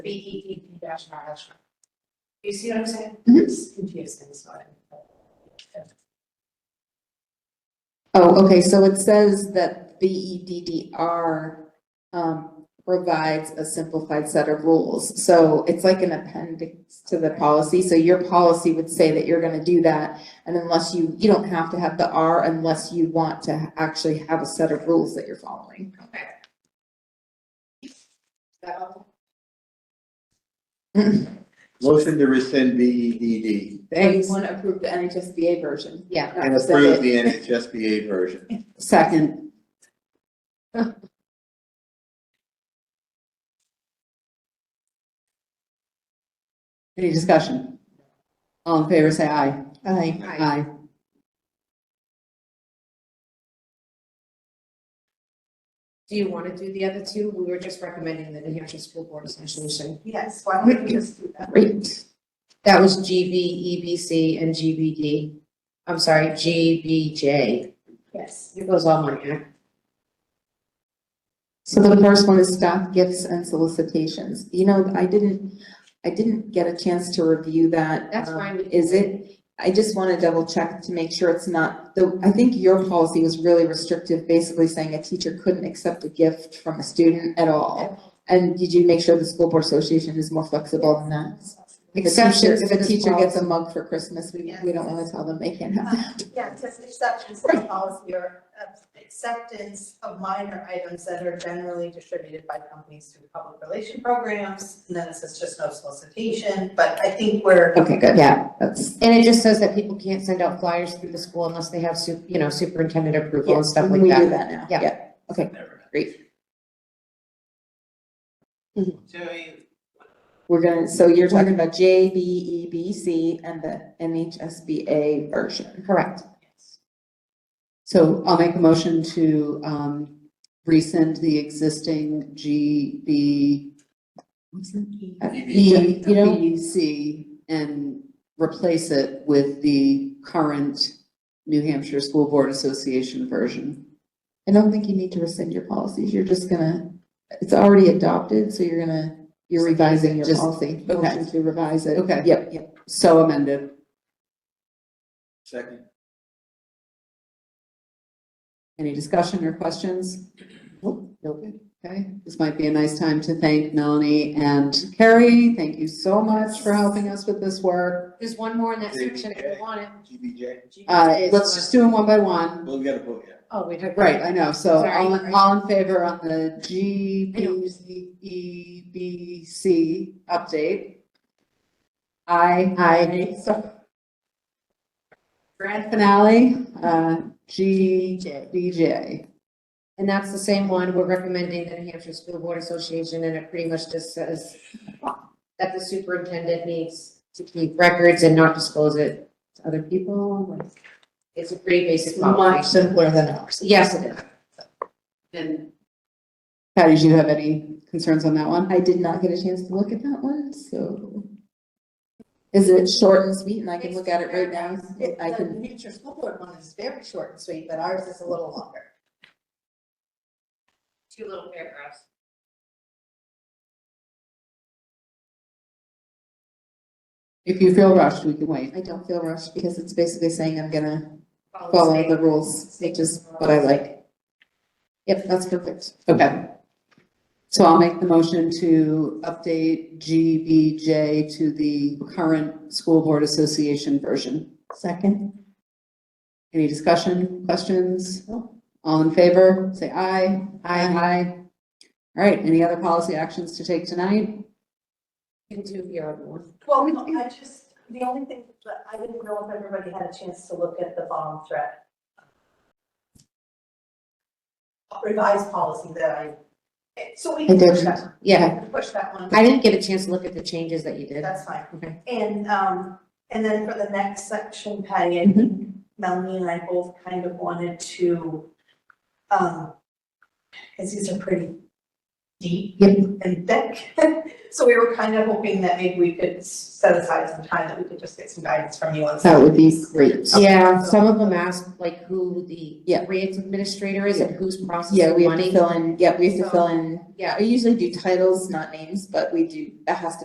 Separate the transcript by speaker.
Speaker 1: BPPP dash R dash R. You see what I'm saying?
Speaker 2: Mhm.
Speaker 1: It's confusing, so I.
Speaker 2: Oh, okay, so it says that B E D D R um provides a simplified set of rules. So it's like an appendix to the policy, so your policy would say that you're gonna do that. And unless you, you don't have to have the R unless you want to actually have a set of rules that you're following.
Speaker 1: Okay. So,
Speaker 3: Motion to rescind B E D D
Speaker 2: Thanks. Want to approve the NHSBA version? Yeah.
Speaker 1: Oh,
Speaker 3: and approve the NHSBA version.
Speaker 2: Second. Any discussion? All in favor, say aye. Aye. Aye.
Speaker 1: do you want to do the other two? We were just recommending the New Hampshire School Board Association.
Speaker 4: Yes, why don't we just do that?
Speaker 2: Great.
Speaker 1: That was GB, EBC, and GBD. I'm sorry, GBJ.
Speaker 4: Yes.
Speaker 1: It goes all my act.
Speaker 2: So the first one is staff gifts and solicitations. You know, I didn't, I didn't get a chance to review that.
Speaker 1: That's
Speaker 2: Um,
Speaker 1: fine.
Speaker 2: Is it, I just want to double check to make sure it's not, the, I think your policy was really restrictive, basically saying a teacher couldn't accept a gift from a student at all. And did you make sure the school board association is more flexible than that? Exceptions, if a teacher gets a mug for Christmas, we, we don't wanna tell them they can't have.
Speaker 4: Yeah, just acceptance of policy or uh, acceptance of minor items that are generally distributed by companies through public relation programs. And then it says just no solicitation, but I think we're,
Speaker 2: Okay, good. Yeah. That's,
Speaker 1: And it just says that people can't send out flyers through the school unless they have, su- you know, superintendent approval and
Speaker 2: yes,
Speaker 1: stuff like
Speaker 2: we
Speaker 1: that.
Speaker 2: do that now.
Speaker 1: Yeah.
Speaker 2: Okay, great. We're gonna, so you're talking about J, B, E, B, C, and the NHSBA version.
Speaker 1: Correct.
Speaker 5: So I'll make a motion to um rescind the existing G B. What's that?
Speaker 2: E, you know,
Speaker 5: B C and replace it with the current New Hampshire School Board Association version.
Speaker 2: I don't think you need to rescind your policies. You're just gonna, it's already adopted, so you're gonna, you're revising your
Speaker 5: Just-
Speaker 2: policy.
Speaker 5: okay.
Speaker 2: Motion to revise it.
Speaker 5: Okay.
Speaker 2: Yep, yep.
Speaker 5: So amended.
Speaker 3: Second.
Speaker 5: Any discussion or questions? Nope. Okay, this might be a nice time to thank Melanie and Carrie. Thank you so much for helping us with this work.
Speaker 1: There's one more in that section if
Speaker 3: GBJ.
Speaker 1: you want it.
Speaker 3: G B J.
Speaker 5: Uh, let's just do them one by one.
Speaker 3: Well, we gotta vote, yeah.
Speaker 1: Oh, we did.
Speaker 5: Right, I know, so
Speaker 1: Sorry.
Speaker 5: all, in- all in favor on the G,
Speaker 1: I know.
Speaker 5: B, Z, E, B, C update? I.
Speaker 1: Aye.
Speaker 5: So- Grand finale, uh, G, B, J.
Speaker 1: And that's the same one, we're recommending the New Hampshire School Board Association, and it pretty much just says that the superintendent needs to keep records and not disclose it to other people. It's a pretty basic
Speaker 5: Much
Speaker 1: policy.
Speaker 5: simpler than ours.
Speaker 1: Yes, it is.
Speaker 5: And Patty, do you have any concerns on that one?
Speaker 2: I did not get a chance to look at that one, so. Is it short and sweet and I can look at it right now?
Speaker 4: it-
Speaker 2: I
Speaker 4: the
Speaker 2: can,
Speaker 4: New Hampshire School Board one is very short and sweet, but ours is a little longer.
Speaker 1: Two little paragraphs.
Speaker 5: If you feel rushed, we can wait.
Speaker 2: I don't feel rushed because it's basically saying I'm gonna follow the rules, which is what I like. Yep, that's perfect.
Speaker 5: Okay. So I'll make the motion to update GBJ to the current School Board Association version.
Speaker 2: Second.
Speaker 5: Any discussion, questions? All in favor, say aye. Aye. Aye. All right, any other policy actions to take tonight?
Speaker 1: You can do the other one.
Speaker 4: Well, no, I just, the only thing, that I didn't know if everybody had a chance to look at the bomb threat. Revised policy that I, eh, so we
Speaker 2: I
Speaker 4: can
Speaker 2: did.
Speaker 4: push that, one. We
Speaker 1: Yeah,
Speaker 4: can push that one,
Speaker 1: I didn't get a chance to look at the changes that you did.
Speaker 4: that's fine.
Speaker 1: Okay.
Speaker 4: And, um, and then for the next section, Patty, I think Melanie and I both kind of wanted to, um, because these are pretty deep
Speaker 1: Yep.
Speaker 4: and thick. So we were kind of hoping that maybe we could set aside some time that we could just get some guidance from you on.
Speaker 5: That would be great.
Speaker 1: Yeah, some of them ask like who the
Speaker 2: Yeah.
Speaker 1: grants administrator is and who's
Speaker 2: Yeah,
Speaker 1: processing
Speaker 2: we have to
Speaker 1: money.
Speaker 2: fill in, yeah, we have to fill in,
Speaker 1: Yeah.
Speaker 2: I usually do titles, not names, but we do, that has to